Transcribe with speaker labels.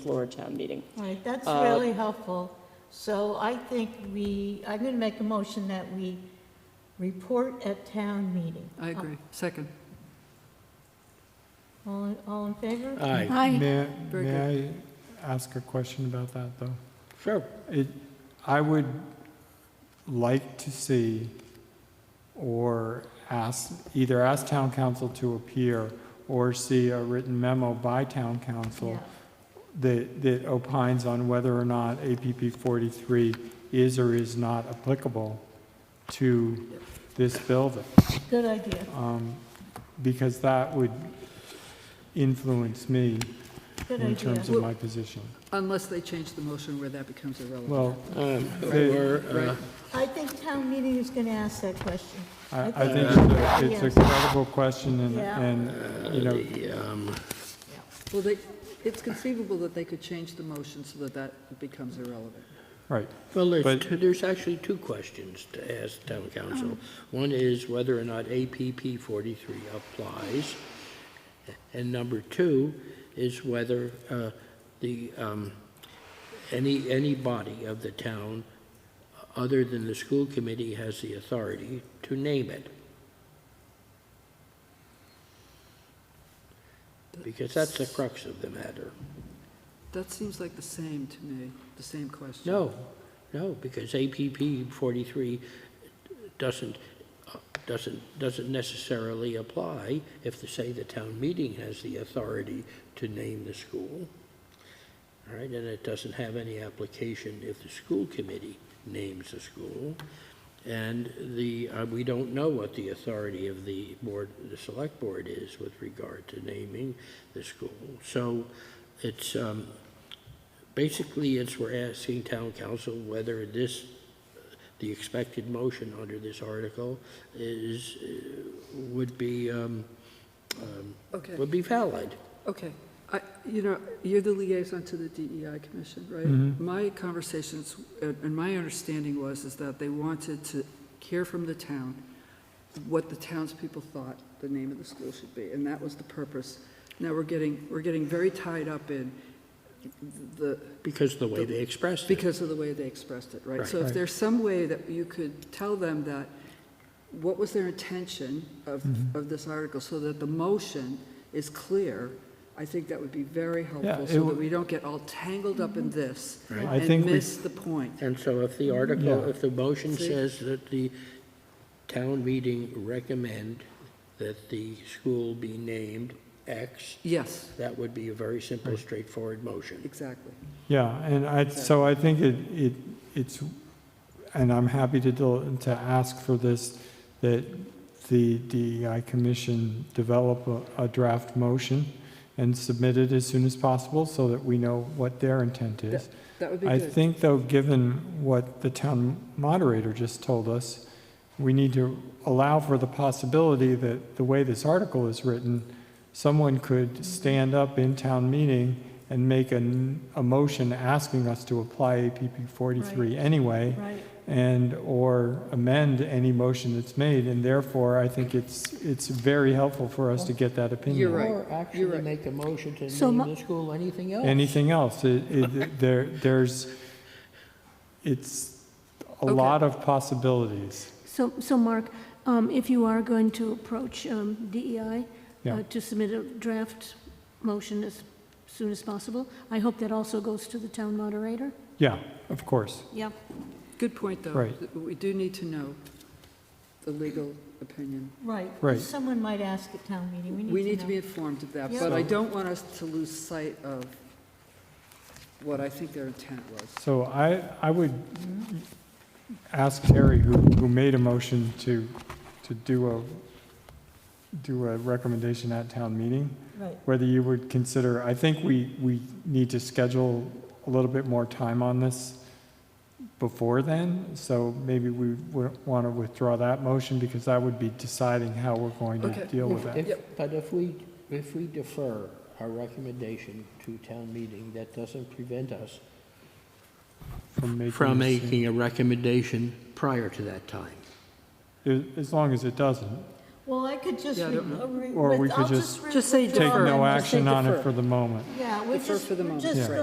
Speaker 1: floor of town meeting.
Speaker 2: All right, that's
Speaker 1: Uh,
Speaker 2: really helpful. So I think we, I'm going to make a motion that we report at town meeting.
Speaker 3: I agree. Second.
Speaker 2: Uh, All, all in favor?
Speaker 4: Aye.
Speaker 5: Aye.
Speaker 6: May,
Speaker 3: Very
Speaker 6: may I ask a question about that, though?
Speaker 4: Sure.
Speaker 6: It, I would like to see, or ask, either ask town council to appear, or see a written memo by town
Speaker 2: Yeah.
Speaker 6: council that, that opines on whether or not APP 43 is or is not applicable to this building.
Speaker 2: Good idea.
Speaker 6: um, Because that would influence me
Speaker 2: Good
Speaker 6: in
Speaker 2: idea.
Speaker 6: terms of my position.
Speaker 3: Unless they change the motion where that becomes irrelevant.
Speaker 6: Well,
Speaker 4: Um,
Speaker 6: They-
Speaker 4: Or, uh,
Speaker 3: Right.
Speaker 2: I think town meeting is going to ask that question. I
Speaker 6: I, I
Speaker 2: think-
Speaker 6: think it's a- it's
Speaker 2: Yeah.
Speaker 6: a credible question and,
Speaker 2: Yeah.
Speaker 6: and, you know,
Speaker 4: the, um,
Speaker 3: Well, they, it's conceivable that they could change the motion so that that becomes irrelevant.
Speaker 6: right.
Speaker 4: well, there's,
Speaker 6: But-
Speaker 4: two- there's actually two questions to ask town council. One is whether or not APP 43 applies. And number two is whether uh, the, um, any, any body of the town other than the school committee has the authority to name it. Because that's the crux of the matter.
Speaker 3: That seems like the same to me, the same question.
Speaker 4: No, no, because APP 43 doesn't, doesn't, doesn't necessarily apply if, the- say, the town meeting has the authority to name the school. All right, and it doesn't have any application if the school committee names the school. And the, uh, we don't know what the authority of the board, the select board is with regard to naming the school. So it's, um, Basically, it's we're asking town council whether this, the expected motion under this article is, uh, would be, um, um,
Speaker 3: Okay,
Speaker 4: would be valid.
Speaker 3: okay. I, you know, you're the liaison to the DEI commission, right?
Speaker 6: Mhm.
Speaker 3: My conversations, and and my understanding was, is that they wanted to hear from the town what the townspeople thought the name of the school should be, and that was the purpose. Now, we're getting, we're getting very tied up in the,
Speaker 4: Because the way they expressed it.
Speaker 3: Because of the way they expressed it, right?
Speaker 4: Right.
Speaker 3: So if
Speaker 6: Right.
Speaker 3: there's some way that you could tell them that, what was their intention of,
Speaker 6: Mm-hmm.
Speaker 3: of this article, so that the motion is clear, I think that would be very helpful,
Speaker 6: it
Speaker 3: so that
Speaker 6: would-
Speaker 3: we don't get all tangled up in this
Speaker 4: Right.
Speaker 6: I think
Speaker 3: and
Speaker 6: we-
Speaker 3: miss the point.
Speaker 4: And so if the article,
Speaker 6: Yeah.
Speaker 4: if the motion
Speaker 3: See?
Speaker 4: says that the town meeting recommend that the school be named X,
Speaker 3: Yes,
Speaker 4: that would be a very simple, straightforward motion.
Speaker 3: exactly.
Speaker 6: Yeah, and I, so I think it, it, it's, and I'm happy to, do- to ask for this, that the DEI commission develop a, a draft motion and submit it as soon as possible so that we know what their intent is.
Speaker 3: That would be
Speaker 6: I
Speaker 3: good.
Speaker 6: think, though, given what the town moderator just told us, we need to allow for the possibility that the way this article is written, someone could stand up in town meeting and make an, a motion asking us to apply APP 43 anyway,
Speaker 2: Right.
Speaker 6: and, or amend any motion that's made, and therefore, I think it's, it's very helpful for us to get that opinion.
Speaker 3: You're right.
Speaker 4: Or
Speaker 3: You're
Speaker 4: actually
Speaker 3: right.
Speaker 4: make a motion to
Speaker 5: So
Speaker 4: name
Speaker 5: mu-
Speaker 4: the school anything else.
Speaker 6: anything else. It, it, there, there's, it's a
Speaker 3: Okay.
Speaker 6: lot of possibilities.
Speaker 5: So, so Mark, um, if you are going to approach um, DEI
Speaker 6: Yeah.
Speaker 5: uh, to submit a draft motion as soon as possible, I hope that also goes to the town moderator.
Speaker 6: Yeah, of course.
Speaker 5: Yeah.
Speaker 3: Good point, though.
Speaker 6: Right.
Speaker 3: We do need to know the legal opinion.
Speaker 2: Right.
Speaker 6: Right.
Speaker 2: Someone might ask at town meeting.
Speaker 3: We need to
Speaker 2: know.
Speaker 3: be informed of that,
Speaker 2: Yeah.
Speaker 3: but I don't want us to lose sight of what I think their intent was.
Speaker 6: So I, I would ask Terry, who, who made a motion to, to do a, do a recommendation at town meeting,
Speaker 2: Right.
Speaker 6: whether you would consider, I think we, we need to schedule a little bit more time on this before then, so maybe we would want to withdraw that motion, because that would be deciding how we're going to
Speaker 3: Okay.
Speaker 6: deal with that.
Speaker 4: If- But if we, if we defer our recommendation to town meeting, that doesn't prevent us
Speaker 6: From making.
Speaker 4: from
Speaker 6: a decision.
Speaker 4: making a recommendation prior to that time.
Speaker 6: A- As long as it doesn't.
Speaker 2: Well, I could just,
Speaker 3: Yeah, I
Speaker 2: re-
Speaker 3: don't know.
Speaker 2: re-
Speaker 6: Or we
Speaker 2: with- I'll
Speaker 6: could just-
Speaker 2: just. re-
Speaker 3: Just say
Speaker 2: withdraw
Speaker 6: Take
Speaker 3: Defer.
Speaker 2: and
Speaker 6: no
Speaker 2: just
Speaker 6: action
Speaker 3: say
Speaker 6: on it
Speaker 3: defer.
Speaker 6: for the moment.
Speaker 2: Yeah, we're
Speaker 3: Defer
Speaker 2: just,
Speaker 3: for the
Speaker 2: we're
Speaker 3: moment.
Speaker 2: just
Speaker 6: Yeah.